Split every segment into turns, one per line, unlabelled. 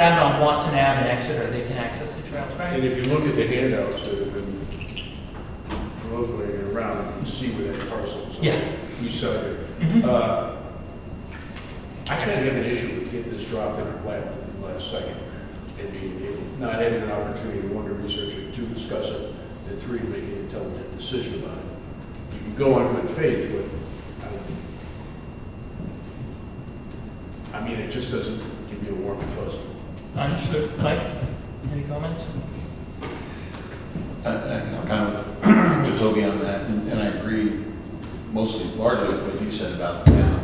Down on Watson Ave and Exeter, they can access the trails,
And
right?
if you look at the handouts that have been proliferating around, you can see where that parcel is.
Yeah.
You saw it.
Mhm.
Uh, I actually have an issue with getting this dropped in our lap at the last second and being able, not having an opportunity to one, to research it, two, discuss it, and three, make an intelligent decision about it. You can go on good faith, but I don't- um, I mean, it just doesn't give you a warm and fuzzy.
Understood. Mike, any comments?
I- I- I'm kind of just looking on that, and and I agree mostly largely with what you said about the town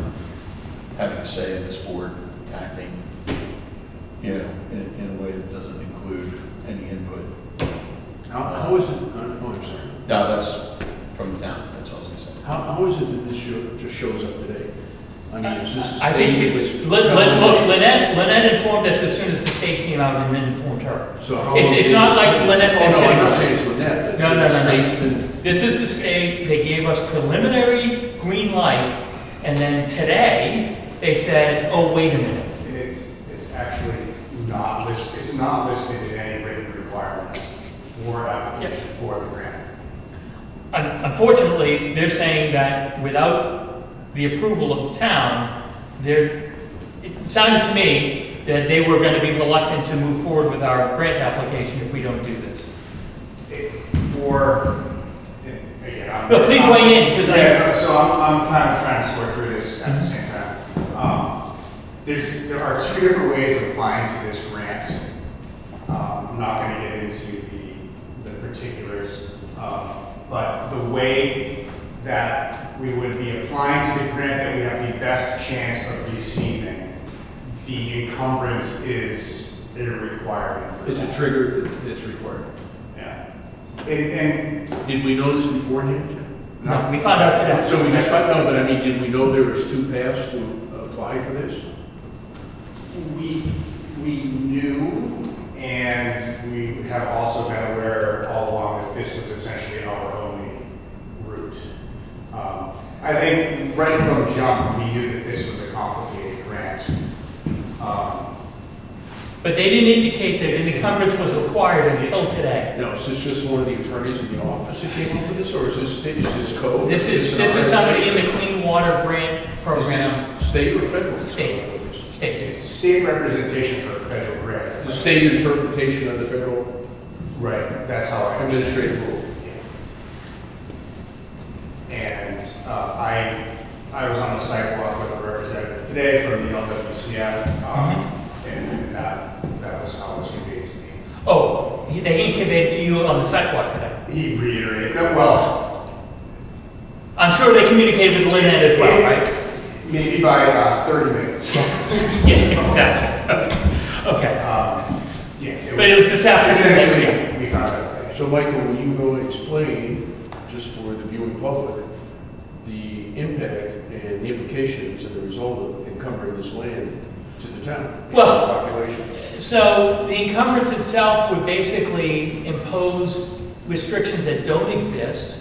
having a say in this board acting, you know, in, in a way that doesn't include any input.
How, how is it, oh, I'm sorry.
No, that's from the town, that's all I was gonna say.
How, how is it that this show, just shows up today? I mean, is this the
I think she
same?
was, Lin- Lin- look, Lynette, Lynette informed us as soon as the state came out and then informed her.
So how?
It's- it's not like Lynette's been
Oh, no,
sitting
I'm
on
not
it.
saying it's Lynette.
No, no,
That's-
no, no.
that's been-
This is the state, they gave us preliminary green light, and then today, they said, oh, wait a minute.
It's, it's actually not listed, it's not listed in any written requirements for application for the grant.
Un- Unfortunately, they're saying that without the approval of the town, they're, it sounded to me that they were gonna be reluctant to move forward with our grant application if we don't do this.
It- For, and again, I'm.
No, please weigh in, 'cause I-
Yeah, no, so I'm, I'm kind of trying to sort through this at the same time. Um, There's, there are two different ways of applying to this grant. Um, I'm not gonna get into the, the particulars, um, but the way that we would be applying to the grant that we have the best chance of receiving, the encumbrance is a requirement for
It's a
that.
trigger that- that's required.
Yeah. And, and.
Did we know this beforehand? Jim?
No, we found out today.
So we just found out, but I mean, did we know there was two paths to apply for this?
We, we knew, and we have also been aware all along that this was essentially our only route. Um, I think right from jump, we knew that this was a complicated grant. Um,
But they didn't indicate that an encumbrance was required until today.
Now, is this just one of the attorneys in the office that came up with this, or is this, sta- is this code?
This is, this is somebody in the Clean Water Grant
Is
Program,
this state or federal?
State. state.
It's state representation for a federal grant.
The state interpretation of the federal
Right, that's how I understand it.
administrative rule.
And uh, I, I was on the sidewalk with a representative today from the LWCF, um, and that, that was how it was conveyed to me.
Oh, he- they incubated to you on the sidewalk today.
He reiterated, no, well,
I'm sure they communicated with Lynette as well, right?
maybe by uh, 30 minutes.
Yeah, exactly. Okay.
Um, Yeah.
But it was this afternoon.
Essentially, we found out today.
So Michael, will you go explain, just for the viewing public, the impact and the implications and the result of encumbering this land to the town?
Well-
Population.
So the encumbrance itself would basically impose restrictions that don't exist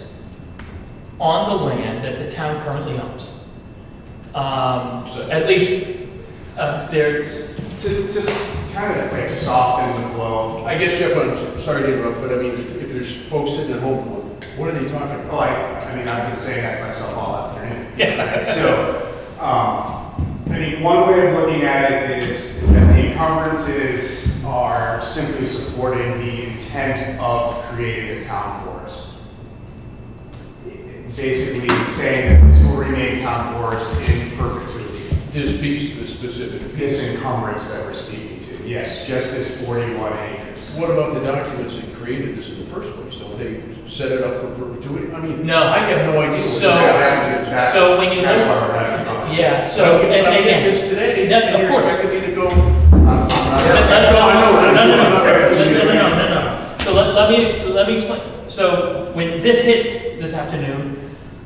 on the land that the town currently owns. Um,
So-
At least, uh, there's,
There's, to, to kind of like soften the blow,
I guess Jeff, I'm sorry to interrupt, but I mean, if there's folks sitting at home, what are they talking about?
Well, I, I mean, I've been saying that to myself all afternoon.
Yeah.
So, um, I mean, one way of looking at it is, is that the encumbrances are simply supporting the intent of creating a town forest. Basically saying that this will remain town forest in perpetuity,
This piece, this specific piece.
this encumbrance that we're speaking to, yes, just this forty-one acres.
What about the documents that created this in the first place? Don't they set it up for perpetuity? I mean,
No.
I have no idea. what
So-
the
That-
documents-
that's- that's-
so when you
That's
look-
why we're having a conversation.
yeah, so,
But
and
I
and
did
again.
this today,
No,
and
of
you're
course.
expecting me to go
I'm- I'm not-
Let- let-
No, I know, I know.
No, no, no,
I'm
no,
sorry.
no, no, no, no, no. So let, let me, let me explain. So when this hit this afternoon,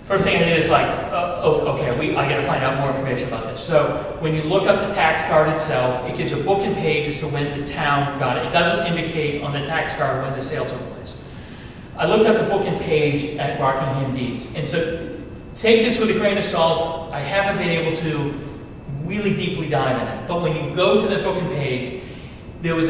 first thing I did is like, uh, oh, okay, we, I gotta find out more information about this. So when you look up the tax card itself, it gives a book and page as to when the town got it. It doesn't indicate on the tax card when the sale took place. I looked up the book and page at Rockingham Deeds, and so take this with a grain of salt. I haven't been able to really deeply dive in it, but when you go to the book and page, there was a